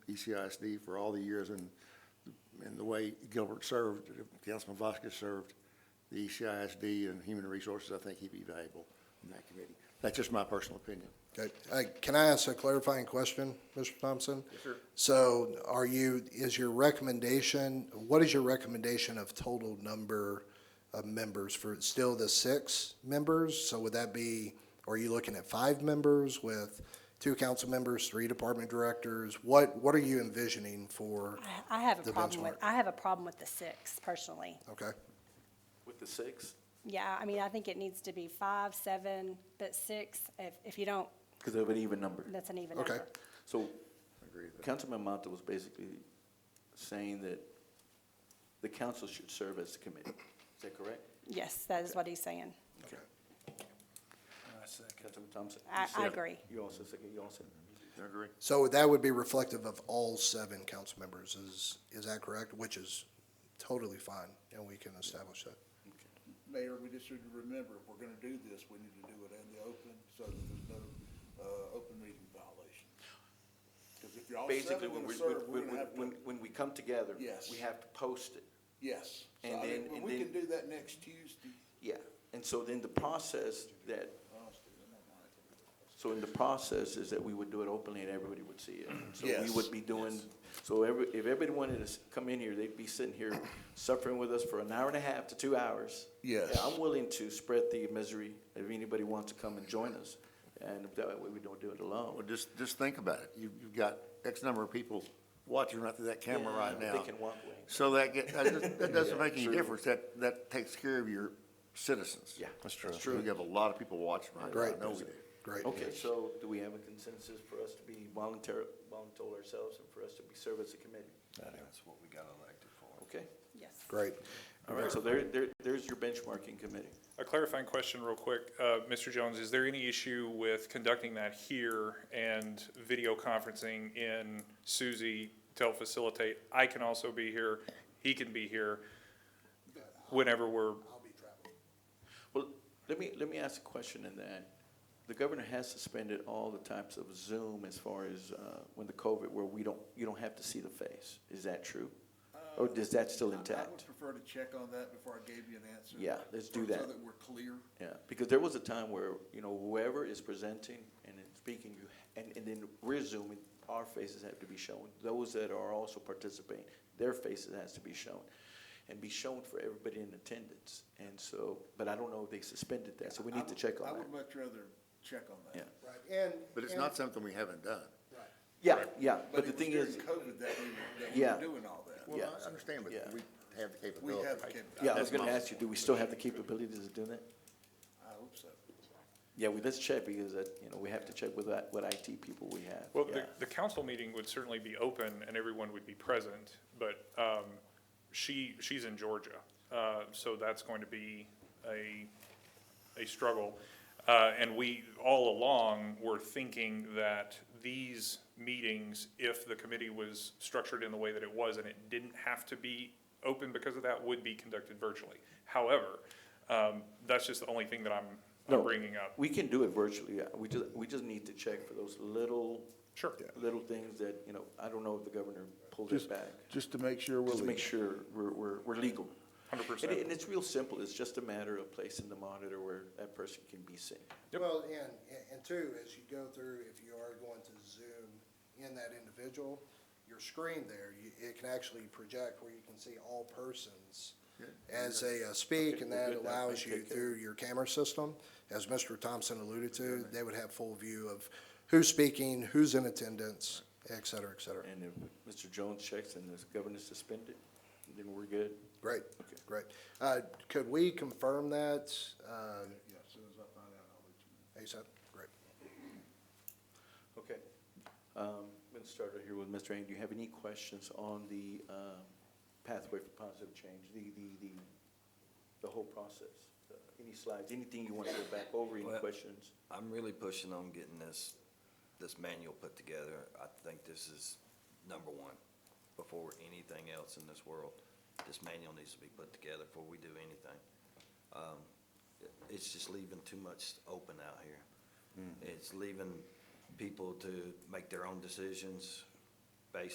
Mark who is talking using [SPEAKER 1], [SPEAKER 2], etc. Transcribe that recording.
[SPEAKER 1] E ECISD for all the years and, and the way Gilbert served, Councilman Vasquez served the E ECISD and Human Resources, I think he'd be valuable in that committee. That's just my personal opinion.
[SPEAKER 2] Okay, Uh, can I ask a clarifying question, Mr. Thompson?
[SPEAKER 1] Yes, sir.
[SPEAKER 2] So are you, is your recommendation, what is your recommendation of total number of members for, still the six members? So would that be, are you looking at five members with two council members, three department directors? What, what are you envisioning for,
[SPEAKER 3] I- I have a
[SPEAKER 2] The
[SPEAKER 3] problem with,
[SPEAKER 2] benchmark.
[SPEAKER 3] I have a problem with the six personally.
[SPEAKER 2] okay?
[SPEAKER 4] With the six?
[SPEAKER 3] Yeah, I mean, I think it needs to be five, seven, but six, if, if you don't,
[SPEAKER 4] Because of an even number.
[SPEAKER 3] that's an even
[SPEAKER 2] Okay.
[SPEAKER 3] number.
[SPEAKER 4] So
[SPEAKER 1] agree with that.
[SPEAKER 4] Councilman Mata was basically saying that the council should serve as the committee. Is that correct?
[SPEAKER 3] Yes, that is what he's saying.
[SPEAKER 4] Okay. Councilman Thompson?
[SPEAKER 3] I-
[SPEAKER 4] you said-
[SPEAKER 3] I agree.
[SPEAKER 4] You also second, you also?
[SPEAKER 1] I agree.
[SPEAKER 2] So that would be reflective of all seven council members, is, is that correct? Which is totally fine, and we can establish that.
[SPEAKER 5] Mayor, we just should remember, if we're gonna do this, we need to do it in the open, so that there's no, uh, open meeting violation. Cause if you're all
[SPEAKER 4] Basically,
[SPEAKER 5] seven
[SPEAKER 4] when,
[SPEAKER 5] gonna
[SPEAKER 4] we-
[SPEAKER 5] serve,
[SPEAKER 4] when,
[SPEAKER 5] we're gonna
[SPEAKER 4] when,
[SPEAKER 5] have
[SPEAKER 4] when,
[SPEAKER 5] to,
[SPEAKER 4] when we come together,
[SPEAKER 5] Yes.
[SPEAKER 4] we have to post it.
[SPEAKER 5] yes. So,
[SPEAKER 4] and
[SPEAKER 5] I mean,
[SPEAKER 4] then-
[SPEAKER 5] when
[SPEAKER 4] and
[SPEAKER 5] We
[SPEAKER 4] then-
[SPEAKER 5] can do that next Tuesday.
[SPEAKER 4] Yeah. And so then the process that,
[SPEAKER 5] Honestly, I don't mind.
[SPEAKER 4] so in the process is that we would do it openly and everybody would see it. So we
[SPEAKER 5] Yes.
[SPEAKER 4] would be doing, so every, if everybody wanted to s- come in here, they'd be sitting here suffering with us for an hour and a half to two hours.
[SPEAKER 5] Yes.
[SPEAKER 4] Yeah, I'm willing to spread the misery if anybody wants to come and join us. And that way we don't do it
[SPEAKER 1] Well,
[SPEAKER 4] alone.
[SPEAKER 1] just, just think about it. You've, you've got X number of people watching right through that camera
[SPEAKER 4] Yeah,
[SPEAKER 1] right
[SPEAKER 4] they
[SPEAKER 1] now.
[SPEAKER 4] can walk away.
[SPEAKER 1] So that get, that doesn't- that doesn't
[SPEAKER 4] Yeah,
[SPEAKER 1] make any
[SPEAKER 4] true.
[SPEAKER 1] difference. That, that takes care of your citizens.
[SPEAKER 4] Yeah, That's true. that's
[SPEAKER 1] So We
[SPEAKER 4] true.
[SPEAKER 1] have a lot of people watching right now. I
[SPEAKER 2] Great.
[SPEAKER 1] know we do.
[SPEAKER 2] Great.
[SPEAKER 4] Okay, so do we have a consensus for us to be voluntary, voluntold ourselves and for us to be serve as a committee?
[SPEAKER 6] That's what we got elected for.
[SPEAKER 4] Okay?
[SPEAKER 3] Yes.
[SPEAKER 2] Great.
[SPEAKER 4] All right, so there, there, there's your benchmarking committee.
[SPEAKER 7] A clarifying question real quick. Uh, Mr. Jones, is there any issue with conducting that here and video conferencing in Suzie to help facilitate? I can also be here, he can be here, whenever we're,
[SPEAKER 4] Well, let me, let me ask a question in that. The governor has suspended all the types of Zoom as far as, uh, when the COVID, where we don't, you don't have to see the face. Is that true? Or is that still
[SPEAKER 5] Uh, I would
[SPEAKER 4] intact?
[SPEAKER 5] prefer to check on that before I gave you an answer.
[SPEAKER 4] Yeah, let's do
[SPEAKER 5] So
[SPEAKER 4] that.
[SPEAKER 5] that we're clear.
[SPEAKER 4] Yeah, because there was a time where, you know, whoever is presenting and then speaking, you, and, and then we're zooming, our faces have to be shown. Those that are also participating, their faces has to be shown, and be shown for everybody in attendance. And so, but I don't know if they suspended that, so we
[SPEAKER 5] I
[SPEAKER 4] need to
[SPEAKER 5] would-
[SPEAKER 4] check
[SPEAKER 5] I
[SPEAKER 4] on that.
[SPEAKER 5] would much rather check on that.
[SPEAKER 4] Yeah,
[SPEAKER 2] Right, and.
[SPEAKER 1] But it's not something we haven't done.
[SPEAKER 4] yeah, yeah, but
[SPEAKER 5] But
[SPEAKER 4] the
[SPEAKER 5] it was
[SPEAKER 4] thing
[SPEAKER 5] during
[SPEAKER 4] is,
[SPEAKER 5] COVID that we, that we
[SPEAKER 4] Yeah.
[SPEAKER 5] were doing all that.
[SPEAKER 1] Well,
[SPEAKER 4] Yeah.
[SPEAKER 1] I understand, but
[SPEAKER 4] Yeah.
[SPEAKER 1] we have the
[SPEAKER 5] We
[SPEAKER 1] capability.
[SPEAKER 5] have, kept-
[SPEAKER 4] yeah, I
[SPEAKER 5] I
[SPEAKER 4] was gonna ask you, do we still have the capabilities of doing that?
[SPEAKER 5] hope so.
[SPEAKER 4] Yeah, we, let's check, because that, you know, we have to check with that, what IT people we have.
[SPEAKER 7] well, the,
[SPEAKER 4] Yeah.
[SPEAKER 7] the council meeting would certainly be open and everyone would be present, but, um, she, she's in Georgia. Uh, so that's going to be a, a struggle. Uh, and we, all along, were thinking that these meetings, if the committee was structured in the way that it was and it didn't have to be open because of that, would be conducted virtually. However, um, that's just the only thing that I'm,
[SPEAKER 4] No.
[SPEAKER 7] I'm bringing up.
[SPEAKER 4] We can do it virtually, yeah. we just, we just need to check for those little.
[SPEAKER 7] Sure.
[SPEAKER 4] Little things that, you know, I don't know if the governor pulled it back,
[SPEAKER 5] Just to make sure
[SPEAKER 4] just to make sure we're, we're, we're legal.
[SPEAKER 7] 100%.
[SPEAKER 4] And it- And it's real simple, it's just a matter of placing the monitor where that person can be seen.
[SPEAKER 2] Well, and, and- and two, as you go through, if you are going to zoom in that individual, your screen there, you, it can actually project where you can see all persons as they uh, speak, and
[SPEAKER 4] Okay,
[SPEAKER 2] that
[SPEAKER 4] we're good now.
[SPEAKER 2] allows you
[SPEAKER 4] Take care.
[SPEAKER 2] through your camera system, as Mr. Thompson alluded to, they would have full view of who's speaking, who's in attendance, et cetera, et cetera.
[SPEAKER 4] And if Mr. Jones checks and the governor's suspended, then we're good.
[SPEAKER 2] Great,
[SPEAKER 4] Okay.
[SPEAKER 2] great. Uh, could we confirm that, uh,
[SPEAKER 5] Yeah, as soon as I find out, I'll let you know.
[SPEAKER 2] ASAP? Great.
[SPEAKER 4] Okay. Um, I'm gonna start right here with Mr. Ang. Do you have any questions on the, um, pathway for positive change, the, the, the, the whole process? Uh, Any slides, anything you wanna go back over, any
[SPEAKER 6] Well-
[SPEAKER 4] questions?
[SPEAKER 6] I'm really pushing on getting this, this manual put together. I think this is number one, before anything else in this world. This manual needs to be put together before we do anything. Um, it- It's just leaving too much open out here. It's leaving people to make their own decisions